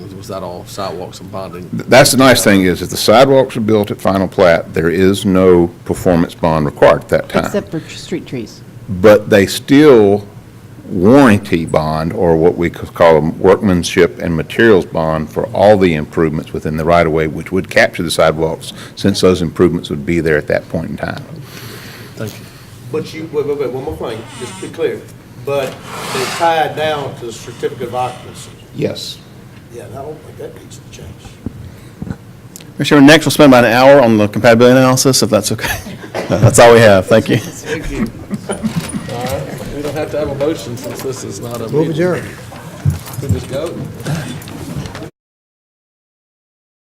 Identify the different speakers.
Speaker 1: was that all sidewalks and bonding?
Speaker 2: That's the nice thing is, if the sidewalks are built at final plat, there is no performance bond required at that time.
Speaker 3: Except for street trees.
Speaker 2: But they still warranty bond, or what we could call a workmanship and materials bond for all the improvements within the right-of-way, which would capture the sidewalks, since those improvements would be there at that point in time.
Speaker 1: Thank you.
Speaker 4: But you, wait, wait, wait, one more thing, just to be clear. But they tied down to the certificate of occupancy.
Speaker 2: Yes.
Speaker 4: Yeah, and I don't think that needs to change.
Speaker 5: Mr. Chairman, next we'll spend about an hour on the compatibility analysis, if that's okay. That's all we have, thank you.
Speaker 1: Thank you. All right, we don't have to have a motion since this is not a meeting.
Speaker 6: Move adjourned.
Speaker 1: We just go.